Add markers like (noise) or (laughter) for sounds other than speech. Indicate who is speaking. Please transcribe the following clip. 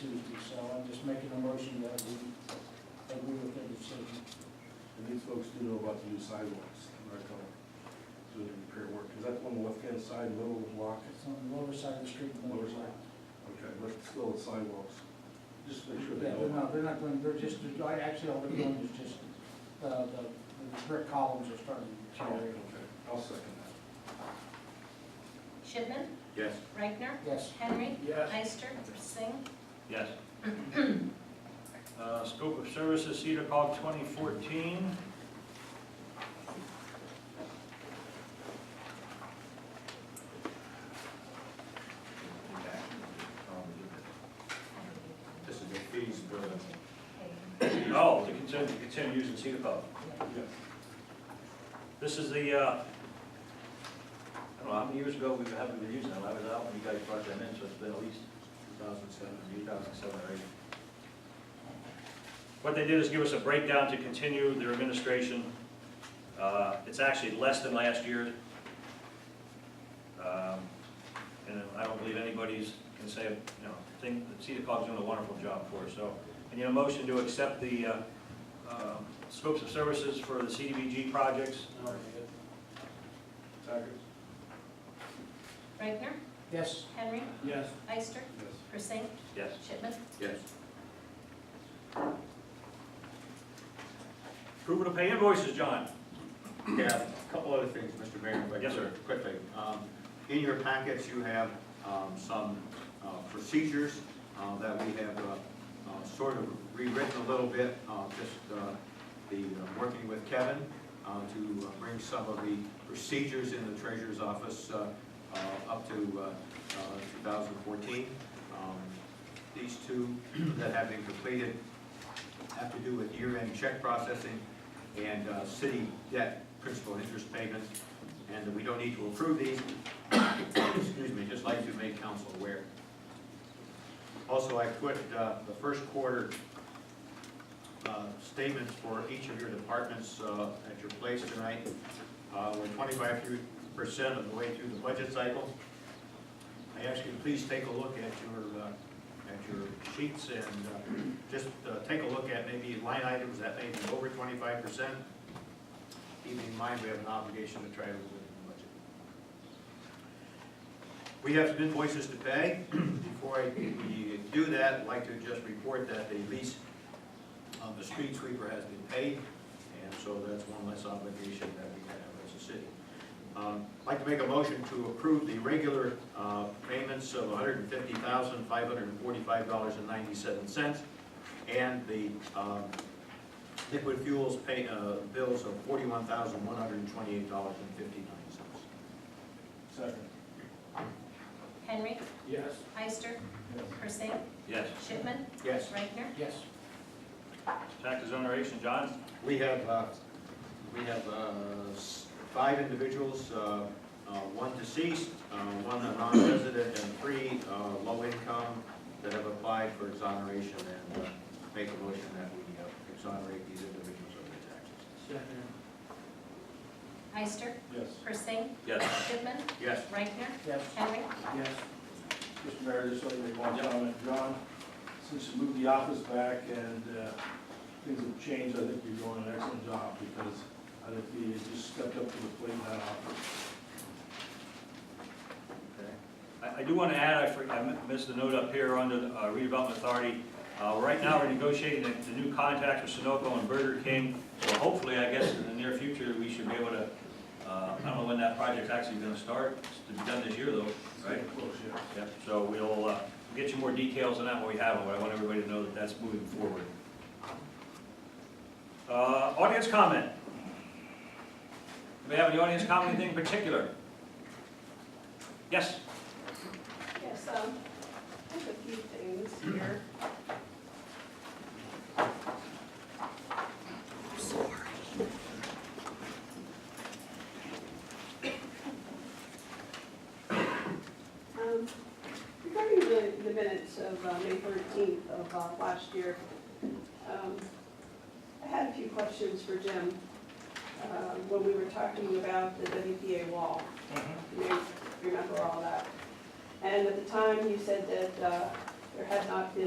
Speaker 1: Tuesday, so I'm just making a motion that we agree with their decision.
Speaker 2: And these folks do know about the new sidewalks, right, on, doing the repair work, is that on the left-hand side, middle of the block?
Speaker 1: It's on the lower side of the street. than the
Speaker 2: Lower side. Okay, but still the sidewalks, just make sure they
Speaker 1: Yeah, they're not,
Speaker 2: know.
Speaker 1: they're not going, they're just, I actually, all they're doing is just, uh, the, the brick columns are starting to
Speaker 2: Oh,
Speaker 1: tear.
Speaker 2: Okay, I'll second that.
Speaker 3: Shipman,
Speaker 4: Yes.
Speaker 3: Reichner,
Speaker 1: Yes,
Speaker 3: Henry,
Speaker 4: Yes.
Speaker 3: Eister, Singh,
Speaker 4: Yes. (clears throat) Uh, Scope of services, Cedar Cog 2014.
Speaker 5: This is the fees for the,
Speaker 4: No, to continue, to continue using Cedar Cog.
Speaker 2: Yes.
Speaker 4: This is the, uh, I don't know, how many years ago we haven't been using it, I was out when you guys brought them in, so it's been at least 2007, 2007, or 8. What they did is give us a breakdown to continue their administration. Uh, It's actually less than last year. Um, And I don't believe anybody's, can say, you know, think, Cedar Cog's doing a wonderful job for us, so. And you know, motion to accept the uh, um, scopes of services for the CDBG projects.
Speaker 2: Second?
Speaker 3: Reichner,
Speaker 1: yes,
Speaker 3: Henry,
Speaker 2: Yes.
Speaker 3: Eister,
Speaker 2: Yes.
Speaker 3: Persing,
Speaker 4: Yes.
Speaker 3: Shipman.
Speaker 5: yes,
Speaker 4: Approval to pay invoices, John.
Speaker 5: yeah, a couple other things, Mr. Mayor, if I
Speaker 4: Yes, sir.
Speaker 5: could, quickly. Um, In your packets, you have um, some uh, procedures uh, that we have uh, uh, sort of rewritten a little bit, uh, just uh, the, uh, working with Kevin uh, to uh, bring some of the procedures in the treasurer's office uh, uh, up to uh, uh, 2014. Um, These two (clears throat) that have been completed have to do with year-end check processing and uh, city debt principal and interest payments, and we don't need to approve these. Excuse me, just like to make council aware. Also, I put uh, the first quarter uh, statements for each of your departments uh, at your place tonight. Uh, We're twenty-five percent of the way through the budget cycle. I ask you, please take a look at your, uh, at your sheets and uh, just uh, take a look at maybe line items that may be over twenty-five percent. Even in mind, we have an obligation to try to live within the budget. We have some invoices to pay. (clears throat) Before I- we do that, I'd like to just report that the lease of the street sweeper has been paid, and so that's one less obligation that we have as a city. Um, I'd like to make a motion to approve the regular uh, payments of $150,545.97 and the um, liquid fuels pay, uh, bills of $41,128.59.
Speaker 2: Second?
Speaker 3: Henry,
Speaker 2: Yes.
Speaker 3: Eister,
Speaker 2: Yes.
Speaker 3: Persing,
Speaker 4: Yes.
Speaker 3: Shipman,
Speaker 5: Yes,
Speaker 3: Reichner,
Speaker 1: yes,
Speaker 4: Tax exoneration, John.
Speaker 5: we have, uh, we have uh, s- five individuals, uh, uh, one deceased, uh, one a non-resident, and three uh, low income that have applied for exoneration and uh, make a motion that we uh, exonerate these individuals of their taxes.
Speaker 3: Eister,
Speaker 2: Yes.
Speaker 3: Persing,
Speaker 4: Yes.
Speaker 3: Shipman,
Speaker 5: Yes,
Speaker 3: Reichner,
Speaker 1: yes,
Speaker 3: Henry,
Speaker 1: yes,
Speaker 2: Mr. Mayor, just let me make one comment, John, since you moved the office back and, uh, things have changed, I think you're doing an excellent job, because I think you just stepped up to the plate in that office.
Speaker 4: I, I do want to add, I for- I mi- missed the note up here under the uh, redevelopment authority. Uh, right now, we're negotiating the, the new contracts with Sunoco and Burger King. So hopefully, I guess in the near future, we should be able to, uh, I don't know when that project's actually going to start. It's to be done this year though, right?
Speaker 2: Of course, yes.
Speaker 4: Yep, so we'll, uh, get you more details on that when we have them, but I want everybody to know that that's moving forward. Uh, audience comment. Do we have any audience comment, anything in particular? Yes,
Speaker 6: Yes, um, I have a few things here. Um, Regarding the, the minutes of uh, May thirteenth of uh, last year, um, I had a few questions for Jim, uh, when we were talking about the WPA wall. You remember all that? And at the time, you said that uh, there had not been